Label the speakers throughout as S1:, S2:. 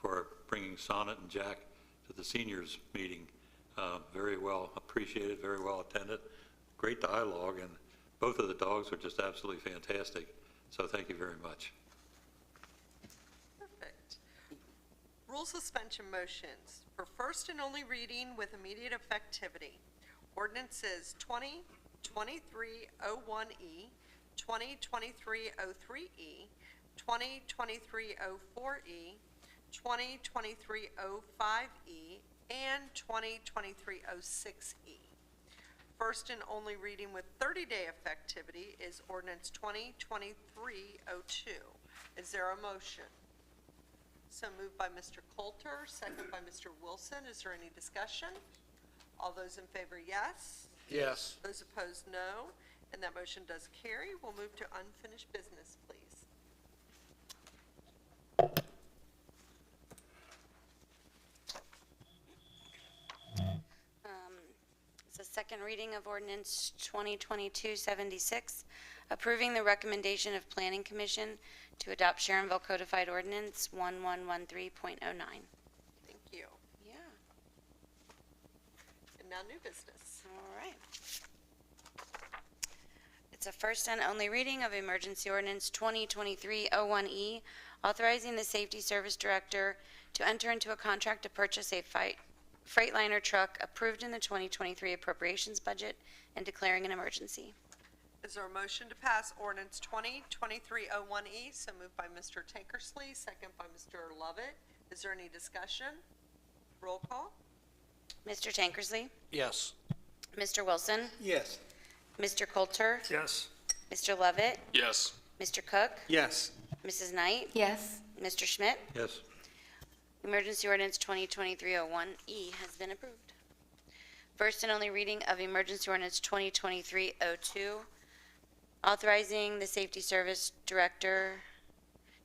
S1: for bringing Sonnet and Jack to the seniors meeting. Uh, Very well appreciated, very well attended, great dialogue, and both of the dogs were just absolutely fantastic. So thank you very much.
S2: Perfect. Rule suspension motions for first and only reading with immediate effectivity. Ordinances 20, 2301E, 202303E, 202304E, 202305E, E, and 202306E. E. First and only reading with 30-day effectivity is ordinance 2023-02. Is there a motion? So moved by Mr. Coulter, second by Mr. Wilson. Is there any discussion? All those in favor, yes.
S3: Yes.
S2: Those opposed, no. And that motion does carry. We'll move to unfinished business, please.
S4: Um, It's the second reading of ordinance 2022-76, approving the recommendation of Planning Commission to adopt Sharonville Codified Ordinance 1113.09.
S2: Thank you.
S4: Yeah,
S2: And now new business.
S4: all right. It's a first and only reading of emergency ordinance 2023-01E, E, authorizing the Safety Service Director to enter into a contract to purchase a fi- Freightliner truck approved in the 2023 appropriations budget and declaring an emergency.
S2: Is there a motion to pass ordinance 202301E? E? So moved by Mr. Tankersley, second by Mr. Lovett. Is there any discussion? Roll call?
S4: Mr. Tankersley?
S3: Yes.
S4: Mr. Wilson?
S3: Yes.
S4: Mr. Coulter?
S3: Yes.
S4: Mr. Lovett?
S5: Yes.
S4: Mr. Cook?
S3: Yes.
S4: Mrs. Knight?
S6: Yes,
S4: Mr. Schmidt?
S1: Yes,
S4: Emergency Ordinance 2023-01E E has been approved. First and only reading of Emergency Ordinance 2023-02, authorizing the Safety Service Director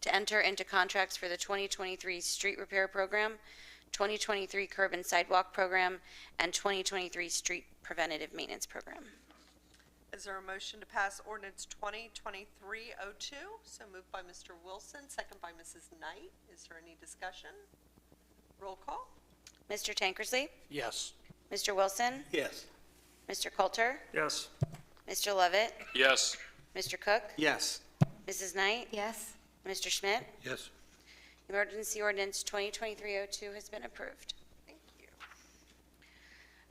S4: to enter into contracts for the 2023 Street Repair Program, 2023 Curb and Sidewalk Program, and 2023 Street Preventative Maintenance Program.
S2: Is there a motion to pass ordinance 2023-02? So moved by Mr. Wilson, second by Mrs. Knight. Is there any discussion? Roll call?
S4: Mr. Tankersley?
S3: Yes.
S4: Mr. Wilson?
S3: Yes.
S4: Mr. Coulter?
S3: Yes.
S4: Mr. Lovett?
S5: Yes.
S4: Mr. Cook?
S3: Yes.
S4: Mrs. Knight?
S6: yes,
S4: Mr. Schmidt?
S1: yes,
S4: Emergency Ordinance 2023-02 has been approved.
S2: Thank you.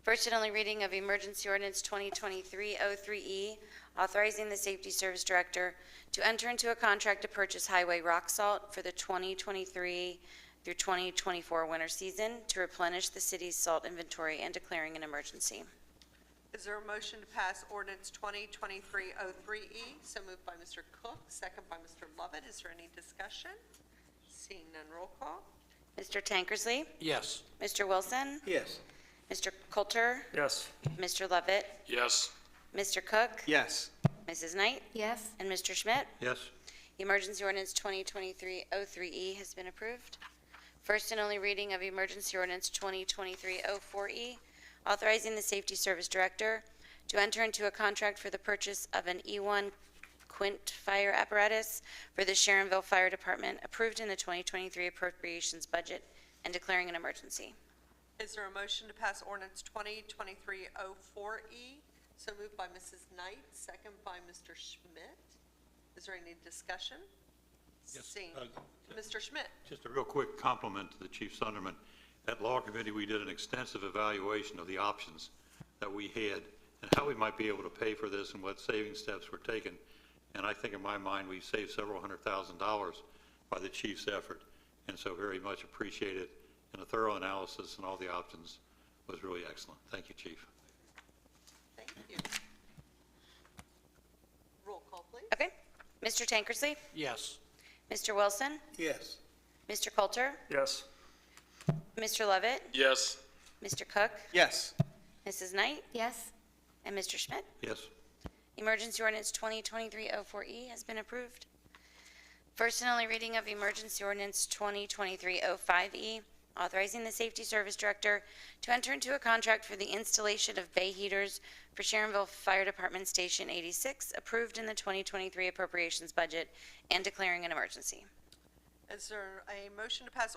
S4: First and only reading of Emergency Ordinance 2023-03E, E, authorizing the Safety Service Director to enter into a contract to purchase highway rock salt for the 2023 through 2024 winter season to replenish the city's salt inventory and declaring an emergency.
S2: Is there a motion to pass ordinance 2023-03E? E? So moved by Mr. Cook, second by Mr. Lovett. Is there any discussion? Seeing none, roll call?
S4: Mr. Tankersley?
S3: Yes.
S4: Mr. Wilson?
S3: Yes.
S4: Mr. Coulter?
S3: Yes.
S4: Mr. Lovett?
S5: Yes.
S4: Mr. Cook?
S3: Yes.
S4: Mrs. Knight?
S6: yes,
S4: And Mr. Schmidt?
S1: yes,
S4: Emergency Ordinance 2023-03E E has been approved. First and only reading of Emergency Ordinance 2023-04E, E, authorizing the Safety Service Director to enter into a contract for the purchase of an E1 Quint fire apparatus for the Sharonville Fire Department, approved in the 2023 appropriations budget, and declaring an emergency.
S2: Is there a motion to pass ordinance 2023-04E? E? So moved by Mrs. Knight, second by Mr. Schmidt. Is there any discussion?
S1: Yes,
S2: Seeing,
S1: uh,
S2: Mr. Schmidt?
S1: Just a real quick compliment to the Chief Sunderman. At Law Committee, we did an extensive evaluation of the options that we had and how we might be able to pay for this and what saving steps were taken. And I think in my mind, we saved several hundred thousand dollars by the chief's effort. And so very much appreciated, and a thorough analysis and all the options was really excellent. Thank you, Chief.
S2: Thank you. Roll call, please.
S4: Okay? Mr. Tankersley?
S3: Yes.
S4: Mr. Wilson?
S3: Yes.
S4: Mr. Coulter?
S3: Yes.
S4: Mr. Lovett?
S5: Yes.
S4: Mr. Cook?
S3: Yes.
S4: Mrs. Knight?
S6: yes,
S4: And Mr. Schmidt?
S1: Yes,
S4: Emergency Ordinance 2023-04E E has been approved. First and only reading of Emergency Ordinance 2023-05E, E, authorizing the Safety Service Director to enter into a contract for the installation of bay heaters for Sharonville Fire Department Station 86, approved in the 2023 appropriations budget, and declaring an emergency.
S2: Is there a motion to pass